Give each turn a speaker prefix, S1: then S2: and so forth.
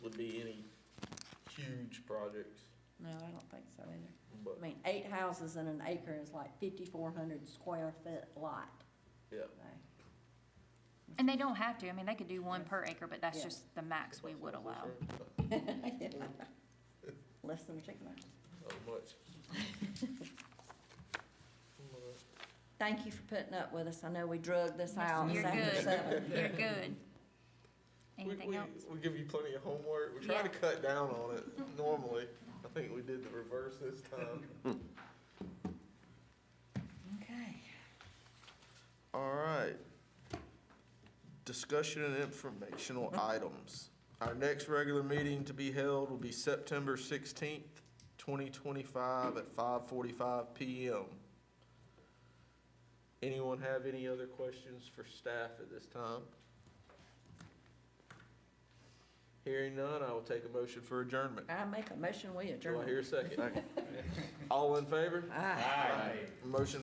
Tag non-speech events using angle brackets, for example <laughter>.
S1: six,
S2: No, I don't think so either.
S1: but,
S2: I mean, eight houses in an acre is like fifty-four hundred square foot lot.
S1: yeah.
S2: Right.
S3: And they don't have to, I mean, they could do one per acre, but that's
S2: Yeah.
S3: just the max we would allow.
S2: <laughs> Less than a chicken. wing.
S1: Not much.
S3: <laughs>
S2: Thank you for putting up with us. I know we drug this out.
S3: You're
S2: seven to
S3: good, <laughs>
S2: seven.
S3: you're good.
S1: We,
S3: Anything
S1: we,
S3: else?
S1: we give you plenty of homework, we try to
S3: Yeah.
S1: cut down on it normally, I think we did the reverse this
S3: <laughs>
S1: time.
S2: Okay.
S1: All right. Discussion and informational items. Our next regular meeting to be held will be September sixteenth, twenty twenty-five at five forty-five PM. Anyone have any other questions for staff at this time? Hearing none, I will take a motion for adjournment.
S2: I make a motion, we
S1: Do I
S2: adjourn.
S1: hear a second? All in favor?
S2: Aye.
S1: Motion